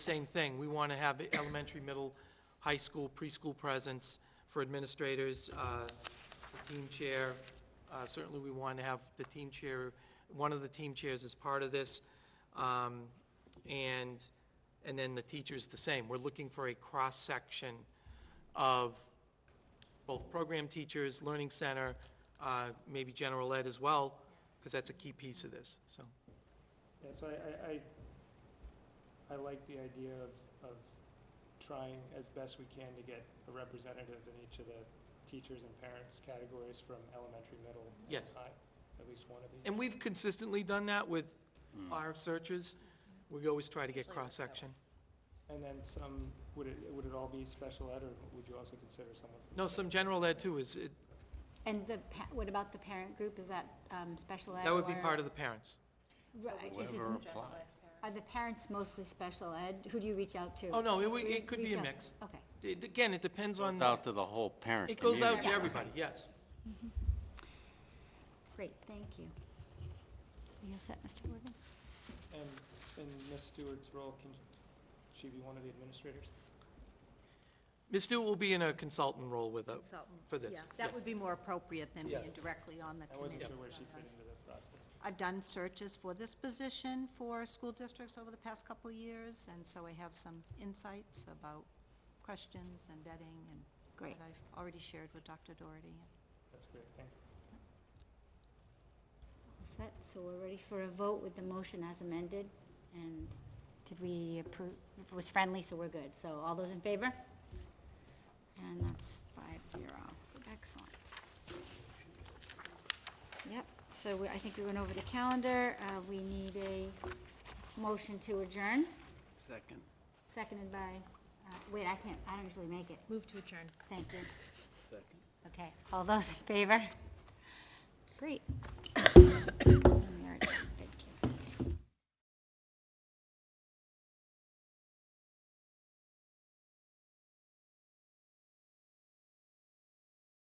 same thing. We want to have elementary, middle, high school, preschool presence for administrators, uh, the team chair. Uh, Certainly, we want to have the team chair, one of the team chairs as part of this. Um, And, and then the teachers the same. We're looking for a cross-section of both program teachers, learning center, uh, maybe general ed as well, because that's a key piece of this, so. Yeah, so I, I, I, I like the idea of, of trying as best we can to get a representative in each of the teachers and parents categories from elementary, middle, and Yes. high. At least one of each. And we've consistently done that with Hmm. our searches. We always try to get cross-section. And then some, would it, would it all be special ed, or would you also consider someone? from- No, some general ed too is, it- And the, pa- what about the parent group? Is that um, special ed? that would be part of the parents. Whoever applies. Are the parents mostly special ed? Who do you reach out to? Oh, no, it w- Re- it could be reach a out- mix. Okay. It- Again, it depends on, Goes out to the whole parent it goes out to Yeah. everybody, yes. Great, thank you. You all set, Mr. Morgan? And in Ms. Stewart's role, can she be one of the administrators? Ms. Stewart will be in a consultant role with a, consultant. for this, Yeah, yeah. that would be more appropriate than Yeah. being directly on the I wasn't committee. sure where she fit into the process. I've done searches for this position for school districts over the past couple of years, and so I have some insights about questions and vetting and Great. that I've already shared with Dr. Doherty. That's great, thank you. All set, so we're ready for a vote with the motion as amended. And did we approve, it was friendly, so we're good. So all those in favor? And that's five zero. Excellent. Yep, so we- I think we went over the calendar. Uh, We need a motion to adjourn, Second. seconded by, uh, wait, I can't, I don't usually make it. Move to adjourn. Thank you. Second. Okay, all those in favor? Great.